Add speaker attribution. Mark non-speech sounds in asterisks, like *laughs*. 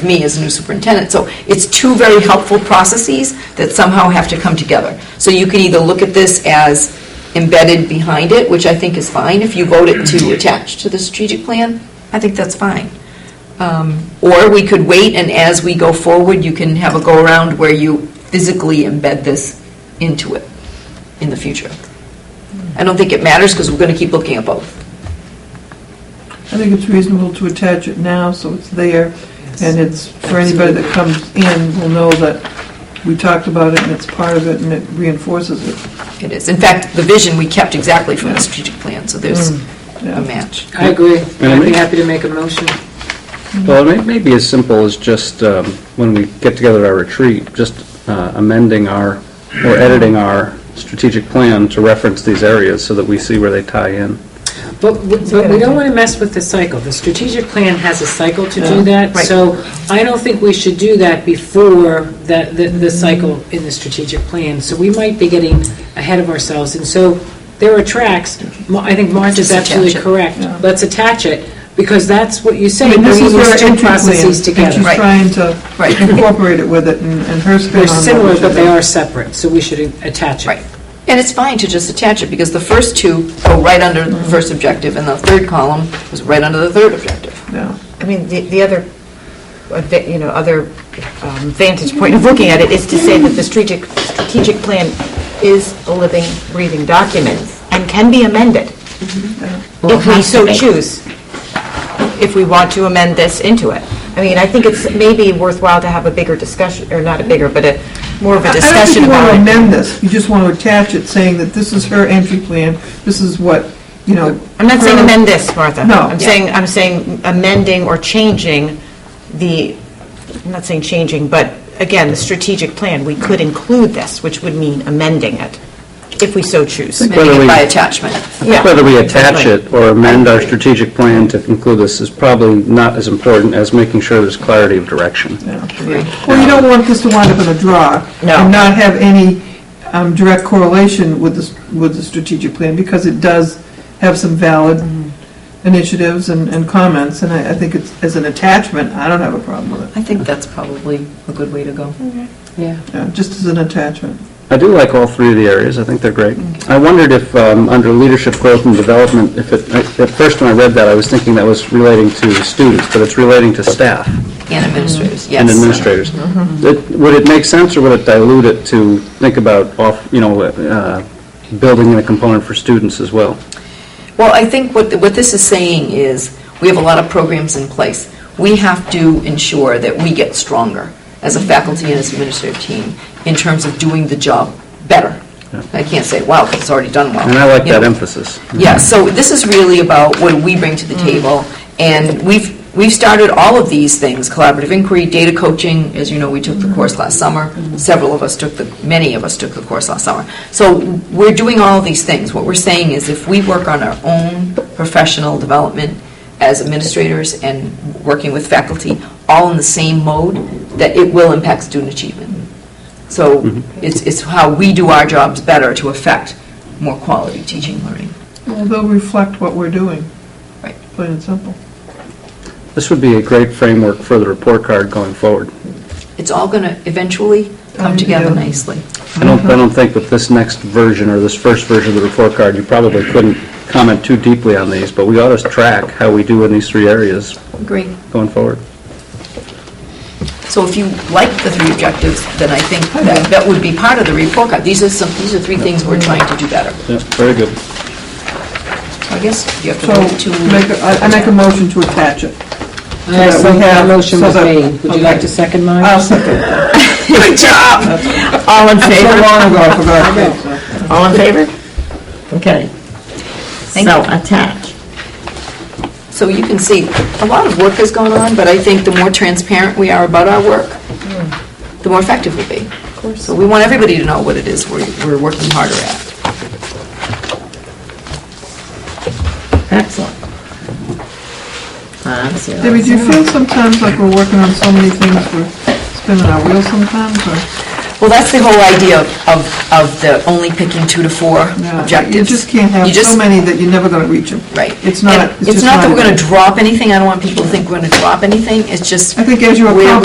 Speaker 1: me as a new superintendent. So it's two very helpful processes that somehow have to come together. So you can either look at this as embedded behind it, which I think is fine, if you vote it to attach to the strategic plan, I think that's fine. Um, Or we could wait, and as we go forward, you can have a go-around where you physically embed this into it in the future. I don't think it matters, because we're going to keep looking at both.
Speaker 2: I think it's reasonable to attach it now, so it's there, and it's, for anybody that comes in will know that we talked about it and it's part of it and it reinforces it.
Speaker 1: It is. In fact, the vision we kept exactly from the strategic plan, so there's
Speaker 2: yeah.
Speaker 1: a match.
Speaker 3: I agree. I'd be
Speaker 4: Melanie?
Speaker 3: happy to make a motion.
Speaker 4: Well, it may may be as simple as just, um, when we get together at our retreat, just uh, amending our, or editing our strategic plan to reference these areas so that we see where they tie in.
Speaker 3: But we but we don't want to mess with the cycle. The strategic plan has a cycle to do that,
Speaker 1: Right.
Speaker 3: so I don't think we should do that before that, the, the cycle in the strategic plan. So we might be getting ahead of ourselves, and so there are tracks, Ma- I think Marge is
Speaker 1: Just attach
Speaker 3: absolutely
Speaker 1: it.
Speaker 3: correct.
Speaker 2: Yeah.
Speaker 3: Let's attach it, because that's what you
Speaker 2: I
Speaker 3: say,
Speaker 2: mean, this
Speaker 3: bringing
Speaker 2: is
Speaker 3: these
Speaker 2: her
Speaker 3: two
Speaker 2: entry plan,
Speaker 3: processes
Speaker 2: and
Speaker 3: together.
Speaker 2: she's
Speaker 1: Right.
Speaker 2: trying to incorporate it with it and and her spin on
Speaker 3: They're
Speaker 2: it.
Speaker 3: similar,
Speaker 2: which
Speaker 3: but
Speaker 2: is-
Speaker 3: they are separate, so we should attach it.
Speaker 1: Right. And it's fine to just attach it, because the first two go right under the first objective, and the third column was right under the third objective.
Speaker 2: Yeah.
Speaker 5: I mean, the the other, adva- you know, other um, vantage point of looking at it is to say that the strategic, strategic plan is a living, breathing document and can be amended
Speaker 2: Mm-hmm.
Speaker 5: if we so choose, if we want to amend this into it. I mean, I think it's maybe worthwhile to have a bigger discussion, or not a bigger, but a, more of a discussion
Speaker 2: I don't think
Speaker 5: about
Speaker 2: you want to
Speaker 5: it.
Speaker 2: amend this, you just want to attach it saying that this is her entry plan, this is what, you know.
Speaker 5: I'm not saying
Speaker 2: her-
Speaker 5: amend this, Martha.
Speaker 2: No.
Speaker 5: I'm saying, I'm saying amending or changing the, I'm not saying changing, but again, the strategic plan, we could include this, which would mean amending it, if we so choose.
Speaker 4: Whether
Speaker 1: Amending it
Speaker 4: we-
Speaker 1: by attachment.
Speaker 5: Yeah.
Speaker 4: Whether we attach
Speaker 5: Right.
Speaker 4: it or amend our strategic plan to conclude this is probably not as important as making sure there's clarity of direction.
Speaker 2: Well, you don't want this to wind up in a draw.
Speaker 5: No.
Speaker 2: And not have any um, direct correlation with the, s- with the strategic plan, because it does have some valid initiatives and, and comments, and I, I think it's, as an attachment, I don't have a problem with it,
Speaker 1: I think that's probably a good way to go.
Speaker 3: Yeah.
Speaker 2: Yeah, just as an attachment.
Speaker 4: I do like all three of the areas, I think they're great. I wondered if, um, under leadership growth and development, if it, I- at first when I read that, I was thinking that was relating to students, but it's relating to staff
Speaker 1: And administrators, yes. Mm-hmm.
Speaker 4: and administrators. It- Would it make sense, or would it dilute it to think about, off- you know, uh, building in a component for students as well?
Speaker 1: Well, I think what, what this is saying is, we have a lot of programs in place. We have to ensure that we get stronger as a faculty and as administrative team in terms of doing the job better. I can't say, wow, 'cause it's already done well.
Speaker 4: And I like
Speaker 1: you
Speaker 4: that
Speaker 1: know.
Speaker 4: emphasis.
Speaker 1: Yeah, so this is really about what we bring to the table, and we've, we've started all of these things, collaborative inquiry, data coaching, as you know, we took the course last summer, several of us took the, many of us took the course last summer. So we're doing all of these things. What we're saying is if we work on our own professional development as administrators and working with faculty, all in the same mode, that it will impact student achievement. So it's, it's how we do our jobs better to affect more quality teaching, learning.
Speaker 2: Well, they'll reflect what we're doing.
Speaker 1: Right.
Speaker 2: Plain and simple.
Speaker 4: This would be a great framework for the report card going forward.
Speaker 1: it's all going to eventually come
Speaker 2: Come
Speaker 1: together
Speaker 2: together.
Speaker 1: nicely.
Speaker 4: I
Speaker 1: Mm-hmm.
Speaker 4: don't, I don't think with this next version, or this first version of the report card, you probably couldn't comment too deeply on these, but we ought to track how we do in these three areas
Speaker 1: Agree.
Speaker 4: going forward.
Speaker 1: So if you like the three objectives, then I think that, that would be part of the report card. These are some, these are three things we're trying to do better.
Speaker 4: Yeah, very good.
Speaker 1: So I guess you have to
Speaker 2: So,
Speaker 1: vote *laughs* to...
Speaker 2: make, a- I I make a motion to attach it. So
Speaker 3: I
Speaker 2: that we
Speaker 3: second-
Speaker 2: have-
Speaker 3: that Uh, motion
Speaker 2: so
Speaker 3: was
Speaker 2: that-
Speaker 3: made. Would you like to second mine?
Speaker 2: I'll *laughs* second.
Speaker 1: Good job!
Speaker 5: All in
Speaker 2: So
Speaker 5: favor?
Speaker 2: long ago, I forgot. to say so.
Speaker 5: All in favor? Okay.
Speaker 1: Thank
Speaker 5: So attach.
Speaker 1: So you can see, a lot of work has gone on, but I think the more transparent we are about our work, the more effective we'll be. Of course. So we want everybody to know what it is we're, we're working harder at.
Speaker 5: Excellent. Ah, so-
Speaker 2: Debbie, do you feel sometimes like we're working on so many things, we're spinning our wheels sometimes, or?
Speaker 1: Well, that's the whole idea of, of the only picking two to four
Speaker 2: No,
Speaker 1: objectives.
Speaker 2: You just can't
Speaker 1: You
Speaker 2: have
Speaker 1: just-
Speaker 2: so many that you're never going to reach them.
Speaker 1: Right.
Speaker 2: It's not,
Speaker 1: And
Speaker 2: it's just
Speaker 1: not that we're going
Speaker 2: a-
Speaker 1: to drop anything, I don't want people to think we're going to drop anything, it's just.
Speaker 2: I think as you
Speaker 1: where